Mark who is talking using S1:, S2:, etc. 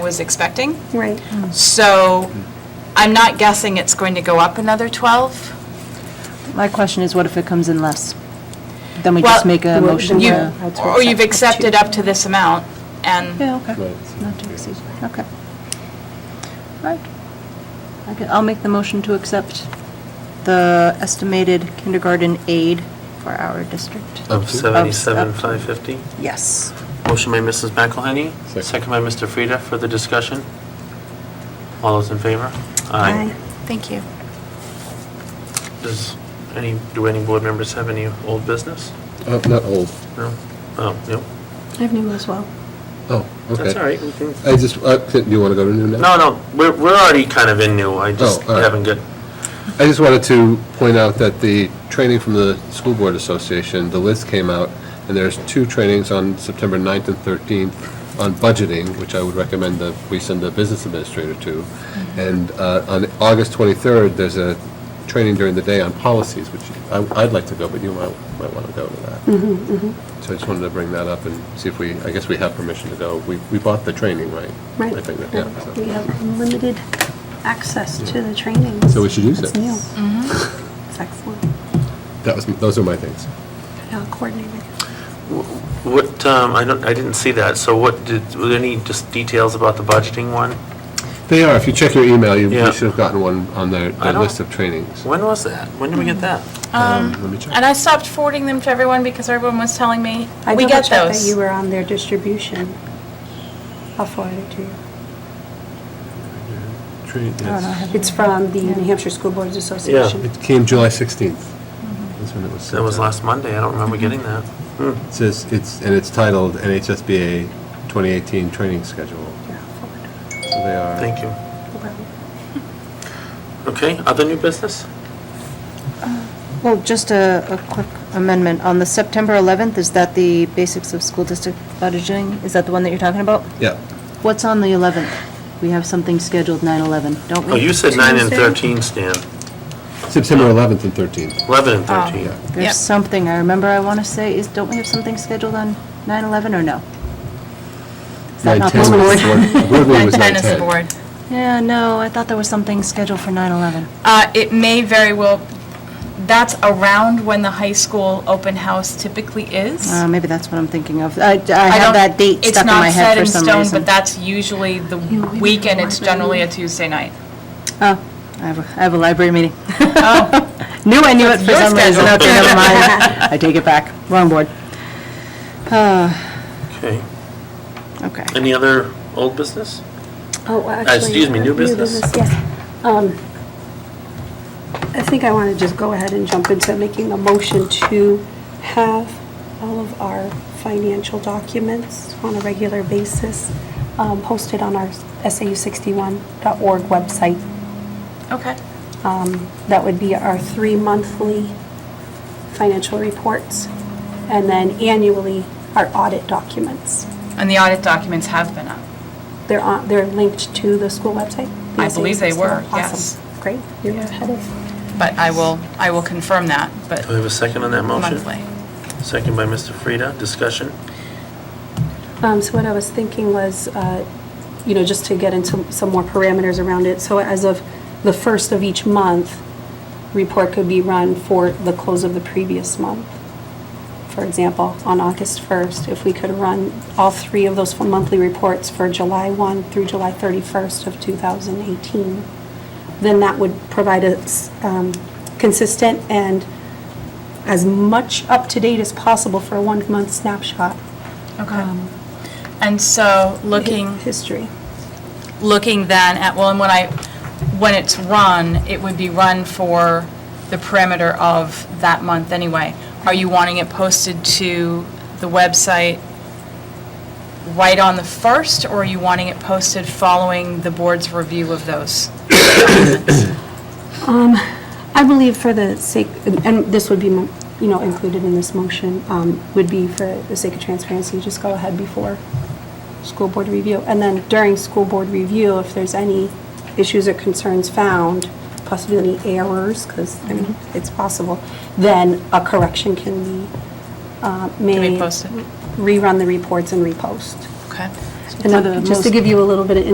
S1: was expecting.
S2: Right.
S1: So I'm not guessing it's going to go up another 12.
S3: My question is, what if it comes in less? Then we
S1: Well,
S3: just make a
S2: well,
S3: motion
S2: then
S1: You-
S3: to...
S2: Yeah.
S1: Or you've accepted up to this amount, and
S3: Yeah, okay. Not to exceed, okay. All right. Okay, I'll make the motion to accept the estimated kindergarten aid for our district.
S4: Of
S3: Of- of-
S4: 77,550.
S3: Yes.
S4: Motion by Mrs. McElhenney,
S5: Second.
S4: second by Mr. Frida. Further discussion? All those in favor?
S1: thank you.
S4: Does any, do any board members have any old business?
S5: Uh, Not old.
S4: No? Oh, no.
S2: I have new as well.
S5: Oh, okay.
S4: That's all right. we can-
S5: I just, uh, do you want to go to new now?
S4: No, no, we're, we're already kind of in new. I just
S5: Oh, all right.
S4: haven't got,
S5: I just wanted to point out that the training from the School Board Association, the list came out, and there's two trainings on September 9th and 13th on budgeting, which I would recommend that we send the business administrator to. And uh, on August 23rd, there's a training during the day on policies, which I- I'd like to go, but you might, might want to go to that.
S2: Mm-hmm,
S5: So I just wanted to bring that up and see if we, I guess we have permission to go. We, we bought the training, right?
S2: Right.
S5: I think that- yeah, so-
S2: We have unlimited access to the trainings.
S5: So we should use
S2: That's
S5: it.
S2: new. It's excellent.
S5: That was, those are my things.
S2: Now coordinated.
S4: what, um, I don't, I didn't see that. So what, did, were there any just details about the budgeting one?
S5: They are, if you check your email, you
S4: Yeah.
S5: you should have gotten one on their their
S4: I don't-
S5: list of trainings.
S4: When was that? When did we get that?
S5: Um, Let me check.
S1: And I stopped forwarding them to everyone because everyone was telling me,
S2: I
S1: we get
S2: double-checked that you
S1: those.
S2: were on their distribution. I'll forward it to you.
S5: Train- yes.
S2: It's from the New Hampshire School Boards Association.
S5: It came July 16th. That's when it was.
S4: That was
S5: sent out.
S4: last Monday. I don't remember getting that. Hmm.
S5: It says, it's, and it's titled NHSBA 2018 Training Schedule.
S2: Yeah, I'll forward it.
S5: So they are.
S4: Thank you.
S2: No problem.
S4: Okay, other new business?
S3: Well, just a, a quick amendment. On the September 11th, is that the basics of school district budgeting? Is that the one that you're talking about?
S5: Yeah,
S3: What's on the 11th? We have something scheduled 9/11, don't we?
S4: Oh, you said 9 and
S2: Tuesday.
S4: 13, Stan.
S5: September 11th and 13th.
S4: 11 and
S1: Oh.
S4: 13.
S5: Yeah.
S1: Yep.
S3: There's something, I remember I want to say, is, don't we have something scheduled on 9/11 or no? Is that
S5: Nine
S3: not
S5: ten
S3: this board?
S5: was the board- board meeting was
S1: 9:10
S5: nine
S1: is the
S5: ten.
S1: board.
S3: Yeah, no, I thought there was something scheduled for 9/11.
S1: Uh, It may very well, that's around when the high school open house typically is.
S3: Uh, Maybe that's what I'm thinking of. I I
S1: don't-
S3: have that date stuck in my head for some reason.
S1: It's not set in stone, but that's usually the
S2: we have
S1: weekend,
S2: a
S1: it's
S2: library
S1: generally a Tuesday night.
S3: Oh, I have, a I have a library meeting.
S1: Oh,
S3: Knew I knew it for
S1: your
S3: some reason.
S1: schedule.
S3: Okay, never mind. I take it back. Wrong board. Uh,
S4: Okay.
S3: Okay.
S4: Any other old business?
S2: Oh, actually.
S4: Uh, excuse me, new business.
S2: Yes. Um, I think I want to just go ahead and jump into making a motion to have all of our financial documents on a regular basis um, posted on our SAU61.org website.
S1: okay.
S2: Um, That would be our three monthly financial reports, and then annually, our audit documents.
S1: And the audit documents have been up.
S2: They're on, they're linked to the school website? the
S1: I believe they were,
S2: SAU61.
S1: yes.
S2: Awesome. Great, you're ahead of,
S1: But I will, I will confirm that, but
S4: Do we have a second on that motion?
S1: monthly.
S4: Second by Mr. Frida. Discussion?
S2: um, so what I was thinking was, uh, you know, just to get into some more parameters around it, so as of the first of each month, report could be run for the close of the previous month. For example, on August 1st, if we could run all three of those monthly reports for July 1 through July 31st of 2018, then that would provide a s- um, consistent and as much up-to-date as possible for a one-month snapshot. Um,
S1: Okay. Um, And so looking,
S2: History.
S1: looking then at, well, and when I, when it's run, it would be run for the perimeter of that month anyway. Are you wanting it posted to the website right on the first, or are you wanting it posted following the board's review of those?
S2: I believe for the sake, and this would be, you know, included in this motion, um, would be for the sake of transparency, just go ahead before school board review. And then during school board review, if there's any issues or concerns found, possibly any errors, because, I mean, it's possible, then a correction can be uh, made.
S1: Can be posted?
S2: Rerun the reports and repost.
S1: Okay.
S2: And
S3: For the
S2: then, just to
S3: most-
S2: give you a little bit of